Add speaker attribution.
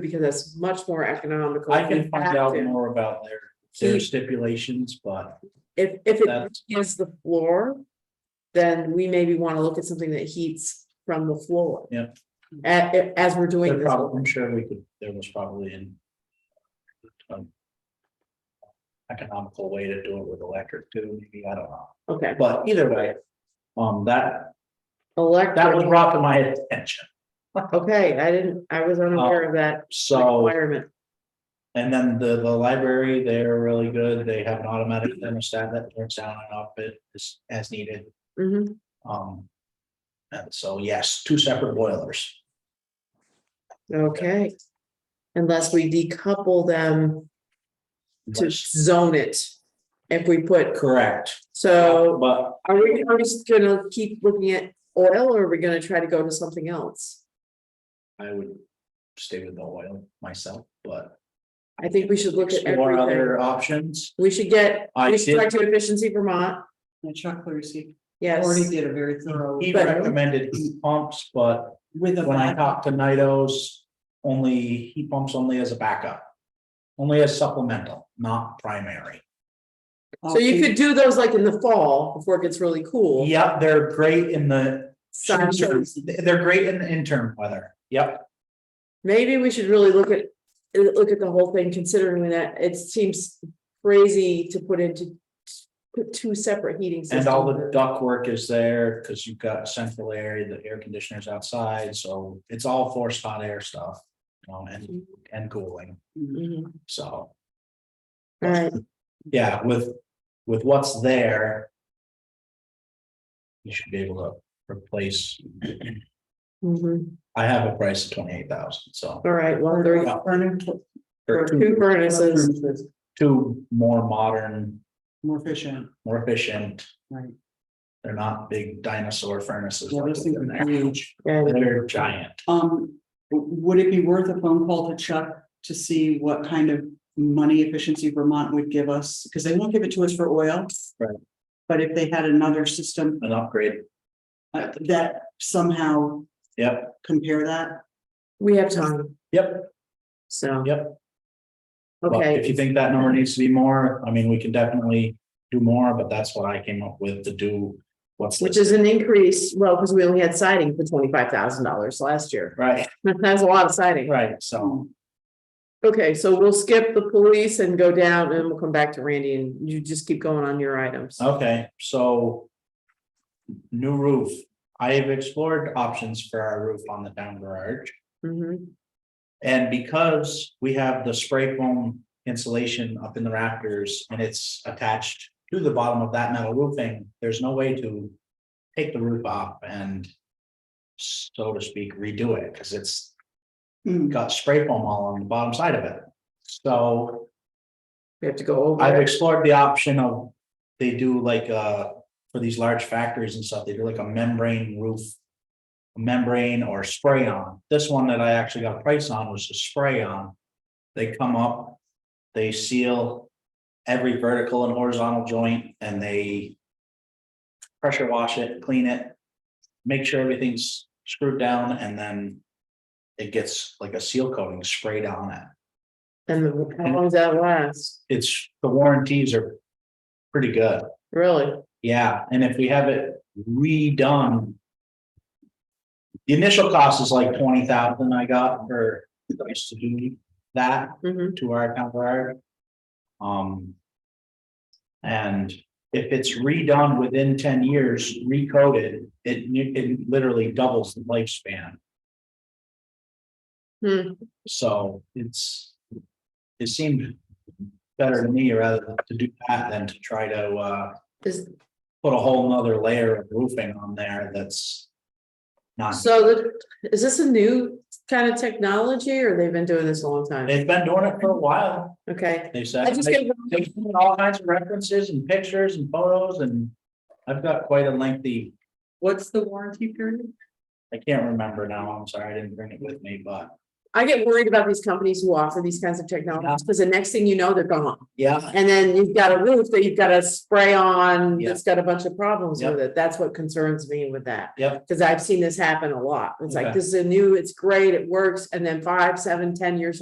Speaker 1: because it's much more economical.
Speaker 2: I can find out
Speaker 1: Active.
Speaker 2: more about their, their
Speaker 1: Keep-
Speaker 2: stipulations, but
Speaker 1: If, if it
Speaker 2: That's-
Speaker 1: is the floor, then we maybe want to look at something that heats from the floor.
Speaker 2: Yeah.
Speaker 1: A- a- as we're doing
Speaker 2: they're
Speaker 1: this,
Speaker 2: probably, I'm sure we could, there was probably an um, economical way to do it with electric too, maybe, I don't know,
Speaker 1: okay,
Speaker 2: but either way, um, that, that was
Speaker 1: electric,
Speaker 2: brought to my attention,
Speaker 1: okay, I didn't, I was unaware of that
Speaker 2: Oh, so.
Speaker 1: requirement.
Speaker 2: And then the, the library, they're really good, they have an automatic thermostat that turns down and up it as, as needed,
Speaker 1: Mhm.
Speaker 2: um. And so, yes, two separate boilers.
Speaker 1: okay. Unless we decouple them to zone it, if we put,
Speaker 2: Correct,
Speaker 1: so.
Speaker 2: but
Speaker 1: Are we, are we just gonna keep looking at oil or are we gonna try to go to something else?
Speaker 2: I would stay with the oil myself, but.
Speaker 1: I think we should look at
Speaker 2: explore
Speaker 1: everything.
Speaker 2: Other options,
Speaker 1: We should get,
Speaker 2: I
Speaker 1: we should
Speaker 2: did-
Speaker 1: talk to Efficiency Vermont,
Speaker 3: And Chuck Clarsey already
Speaker 1: yes.
Speaker 3: did a very thorough.
Speaker 2: he
Speaker 1: But-
Speaker 2: recommended heat pumps, but
Speaker 3: With a.
Speaker 2: when I talked to NITO's, only heat pumps only as a backup. Only as supplemental, not primary.
Speaker 1: So you could do those like in the fall before it gets really cool.
Speaker 2: Yep, they're great in the
Speaker 1: Sun.
Speaker 2: They're great in the interim weather. Yep.
Speaker 1: Maybe we should really look at, look at the whole thing considering that it seems crazy to put into put two separate heating systems.
Speaker 2: And all the duct work is there because you've got central area, the air conditioners outside, so it's all forced hot air stuff. Um, and, and cooling,
Speaker 3: Mm-hmm.
Speaker 1: Mhm.
Speaker 2: so,
Speaker 1: All right,
Speaker 2: yeah, with, with what's there. You should be able to replace,
Speaker 1: Mhm.
Speaker 2: I have a price of twenty-eight thousand, so.
Speaker 1: all right, well, there you go.
Speaker 2: for
Speaker 1: Two
Speaker 2: two-
Speaker 1: furnaces,
Speaker 2: Two more modern,
Speaker 3: More efficient,
Speaker 2: more efficient,
Speaker 3: right.
Speaker 2: they're not big dinosaur furnaces.
Speaker 3: Yeah,
Speaker 2: like
Speaker 3: those things
Speaker 2: the-
Speaker 3: are huge.
Speaker 1: and
Speaker 2: They're giant.
Speaker 3: Um, w- would it be worth a phone call to Chuck to see what kind of money efficiency Vermont would give us? Because they won't give it to us for oil.
Speaker 2: Right.
Speaker 3: But if they had another system
Speaker 2: An upgrade.
Speaker 3: uh, that somehow
Speaker 2: Yep,
Speaker 3: compare that,
Speaker 1: we have time,
Speaker 2: yep,
Speaker 1: so.
Speaker 2: yep. Well,
Speaker 1: Okay.
Speaker 2: If you think that number needs to be more, I mean, we can definitely do more, but that's what I came up with to do. What's
Speaker 1: Which
Speaker 2: this,
Speaker 1: is an increase, well, because we only had siding for twenty-five thousand dollars last year.
Speaker 2: right,
Speaker 1: That's a lot of siding.
Speaker 2: right, so,
Speaker 1: Okay, so we'll skip the police and go down and we'll come back to Randy and you just keep going on your items.
Speaker 2: okay, so. New roof, I have explored options for our roof on the down garage.
Speaker 1: Mhm.
Speaker 2: And because we have the spray foam insulation up in the rafters and it's attached to the bottom of that metal roofing, there's no way to take the roof off and so to speak, redo it, because it's
Speaker 3: Hmm,
Speaker 2: got spray foam all on the bottom side of it. So
Speaker 1: We have to go over.
Speaker 2: I've
Speaker 1: it.
Speaker 2: explored the option of, they do like, uh, for these large factories and stuff, they do like a membrane roof membrane or spray on. This one that I actually got a price on was a spray on. They come up, they seal every vertical and horizontal joint and they pressure wash it, clean it, make sure everything's screwed down and then it gets like a seal coating sprayed on it.
Speaker 1: And the- how long does that last?
Speaker 2: It's, the warranties are pretty good.
Speaker 1: Really?
Speaker 2: Yeah, and if we have it redone. The initial cost is like twenty thousand I got for us to do that
Speaker 1: Mhm.
Speaker 2: to our town guard. Um. And if it's redone within ten years, recoded, it it literally doubles the lifespan,
Speaker 1: Hmm.
Speaker 2: so it's. It seemed better to me rather to do that than to try to uh
Speaker 1: Is-
Speaker 2: put a whole nother layer of roofing on there that's not,
Speaker 1: So the- is this a new kind of technology or they've been doing this a long time?
Speaker 2: they've been doing it for a while,
Speaker 1: Okay.
Speaker 2: they said.
Speaker 1: I just
Speaker 2: They-
Speaker 1: get,
Speaker 2: They've seen all kinds of references and pictures and photos and I've got quite a lengthy,
Speaker 3: What's the warranty period?
Speaker 2: I can't remember now, I'm sorry, I didn't bring it with me, but
Speaker 1: I get worried about these companies who offer these kinds of technologies, because the next thing you know, they're gone.
Speaker 2: Yeah,
Speaker 1: And then you've got a roof that you've got to spray on,
Speaker 2: Yeah.
Speaker 1: that's got a bunch of problems
Speaker 2: Yep.
Speaker 1: with it. That's what concerns me with that.
Speaker 2: Yep.
Speaker 1: Because I've seen this happen a lot. It's like,
Speaker 2: Okay.
Speaker 1: this is a new, it's great, it works, and then five, seven, ten years